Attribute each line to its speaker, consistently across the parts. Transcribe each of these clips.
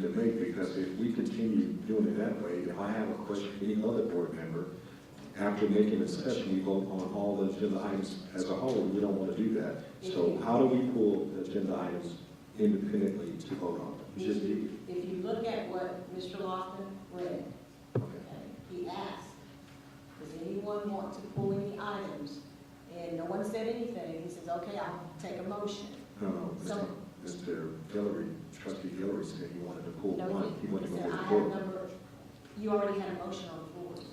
Speaker 1: because if we continue doing it that way, if I have a question, for any other board member, after making a discussion, we vote on all the agenda items as a whole, we don't want to do that.
Speaker 2: Mm-hmm.
Speaker 1: So how do we pull the agenda items independently to vote on? them? Just do
Speaker 2: If you look at what Mr. Lofton read,
Speaker 1: it. Okay.
Speaker 2: okay, he asked, does anyone want to pull any items? And no one said anything. He says, okay, I'll take a motion.
Speaker 1: No, no, Mr.
Speaker 2: So-
Speaker 1: Mr. Um, Hillary, trustee Hillary said he wanted to pull
Speaker 2: No,
Speaker 1: one, he wanted to go
Speaker 2: said, I
Speaker 1: to
Speaker 2: have
Speaker 1: four.
Speaker 2: number, you already had a motion on the floor.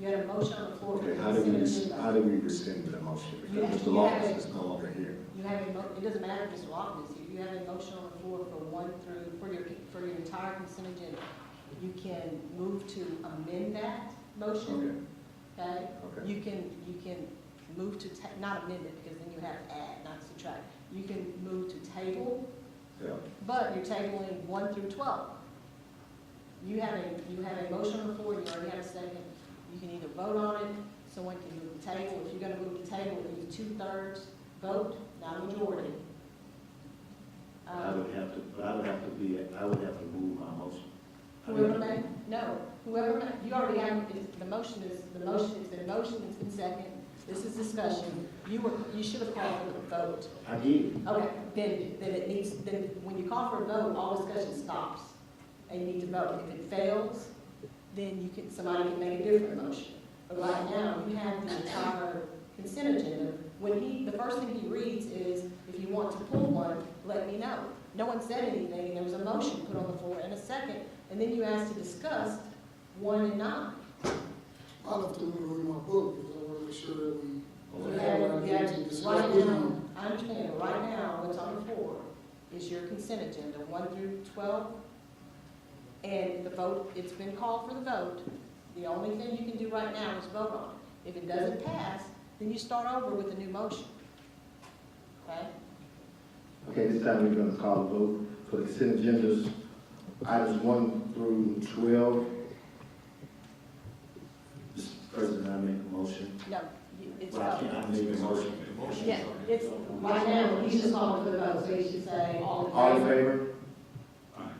Speaker 2: You had a motion on the floor. to
Speaker 1: Okay, how do we,
Speaker 2: consider
Speaker 1: res-
Speaker 2: the-
Speaker 1: how do we rescind the motion?
Speaker 2: You
Speaker 1: Because
Speaker 2: have-
Speaker 1: Mr.
Speaker 2: you have
Speaker 1: Loftus
Speaker 2: it.
Speaker 1: is no longer here.
Speaker 2: You have a, mo- it doesn't matter if Mr. Lofton is here, you have a motion on the floor for one through, for your, for your entire consent agenda. You can move to amend that
Speaker 1: Okay,
Speaker 2: motion, okay?
Speaker 1: okay.
Speaker 2: You can, you can move to, ta- not amend it, because then you have add, not subtract. You can move to table,
Speaker 1: Yeah,
Speaker 2: but you're tabling one through twelve. You have a, you have a motion on the floor, you already have a second, you can either vote on it, someone can move the table. If you're gonna move the table, it needs two-thirds vote, not a majority.
Speaker 3: I
Speaker 2: Um,
Speaker 3: would have to, but I would have to be, I would have to move my motion. I would-
Speaker 2: Whoever made, no, whoever made, you already have, it's- the motion is, the motion is, the motion has been second, this is discussion. You were, you should have called for the vote.
Speaker 3: I did,
Speaker 2: Okay, then, then it needs, then when you call for a vote, all discussion stops, and you need to vote. If it fails, then you can, somebody can make a different motion. But right now, you have the entire consent agenda. When he, the first thing he reads is, if you want to pull one, let me know. No one said anything, and there was a motion put on the floor and a second, and then you asked to discuss one and nine.
Speaker 4: I left them in my book because I wanted to make sure that we.
Speaker 2: You
Speaker 4: Yeah,
Speaker 2: have- you have-
Speaker 4: we discussed
Speaker 2: Right
Speaker 4: it.
Speaker 2: now, I understand, right now, what's on the floor is your consent agenda, one through twelve. And the vote, it's been called for the vote. The only thing you can do right now is vote on it. If it doesn't pass, then you start over with a new motion. Okay?
Speaker 5: Okay, this time we're gonna call a vote for the consent agendas, items one through twelve.
Speaker 3: Mr. President, I make a motion.
Speaker 2: No, you- it's
Speaker 3: But I
Speaker 2: vote.
Speaker 3: can't, I make a motion.
Speaker 2: Yeah, it's, right now, you just called for the vote, so you should say all in
Speaker 5: All in
Speaker 2: favor.
Speaker 5: favor?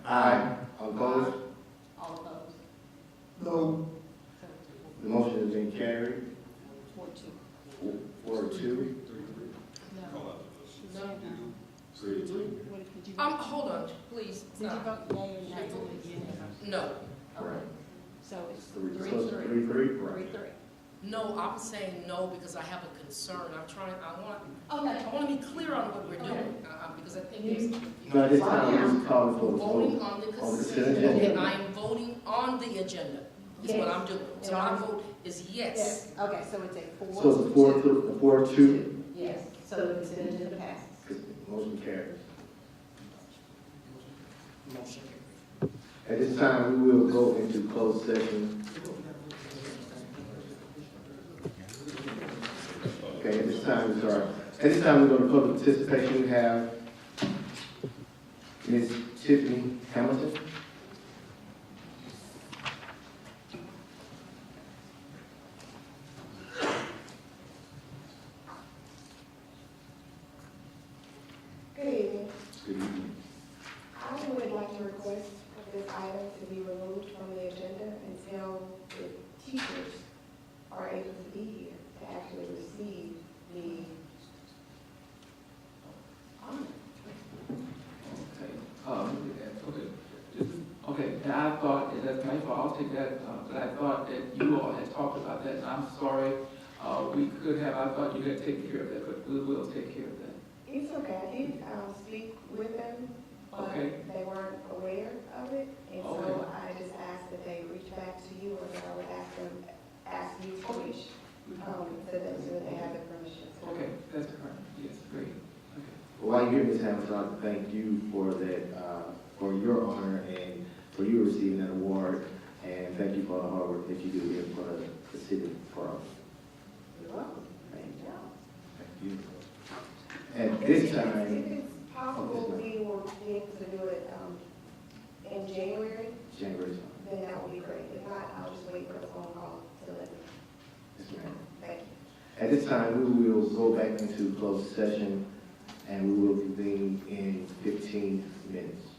Speaker 5: Aye. All opposed?
Speaker 2: All opposed.
Speaker 4: No,
Speaker 2: So,
Speaker 5: The motion has been carried,
Speaker 2: four, two.
Speaker 5: four to two.
Speaker 2: No. No, no. What did you?
Speaker 6: Um, hold on, please,
Speaker 2: Did you
Speaker 6: stop.
Speaker 2: vote yea or nay?
Speaker 6: No,
Speaker 2: Okay, so it's
Speaker 1: Three,
Speaker 2: three,
Speaker 5: So
Speaker 2: three,
Speaker 5: Three, three.
Speaker 2: three,
Speaker 1: right.
Speaker 2: three.
Speaker 6: no, I'm saying no because I have a concern, I'm trying, I want,
Speaker 2: Okay,
Speaker 6: I want to be clear on what we're doing, uh, because I think it's
Speaker 2: Mm-hmm.
Speaker 5: Now, this time we're just calling for a
Speaker 6: voting
Speaker 5: vote.
Speaker 6: on
Speaker 5: On the
Speaker 6: the consent
Speaker 5: consent
Speaker 6: agenda,
Speaker 5: agenda.
Speaker 6: I am voting on the agenda, is what I'm doing. So my vote is yes.
Speaker 2: yes, okay, so it's a four.
Speaker 5: So the four to, the four to two,
Speaker 2: Yes, so the consent agenda passes.
Speaker 5: motion carries. At this time, we will go into closed session. Okay, at this time, we sorry. At this time, we go to public participation. We have Ms. Tiffany Hamilton.
Speaker 7: Good evening.
Speaker 1: Good evening.
Speaker 7: I would like to request for this item to be removed from the agenda until the teachers are able to be here to actually receive the honor.
Speaker 8: Okay, um, look at that, okay. This- Okay, and I thought, and that's my fault, I'll take that, uh, but I thought that you all had talked about that, and I'm sorry. Uh, we could have, I thought you had taken care of that, but we will take care of that.
Speaker 7: It's okay, I did um, speak with them, but
Speaker 8: Okay.
Speaker 7: they weren't aware of it. And
Speaker 8: Okay.
Speaker 7: so I just asked that they reach back to you, or that I would ask them, ask you to reach, um, to them so that they have the permission.
Speaker 2: Oh.
Speaker 8: Okay, that's correct, yes, great, okay.
Speaker 5: While you're here, Ms. Hamilton, I'd like to thank you for that, uh, for your honor and for you receiving that award. And thank you for all the hard work that you do here for the city, for us.
Speaker 7: You're welcome.
Speaker 5: Thank you.
Speaker 7: Good job.
Speaker 5: Thank you. At this
Speaker 7: If
Speaker 5: time,
Speaker 7: it's possible, we will be able to do it um, in January,
Speaker 5: January,
Speaker 7: then that would be great. If not, I'll just wait for a phone call to let me,
Speaker 5: yes, ma'am.
Speaker 7: thank you.
Speaker 5: At this time, we will go back into closed session and we will convene in fifteen minutes.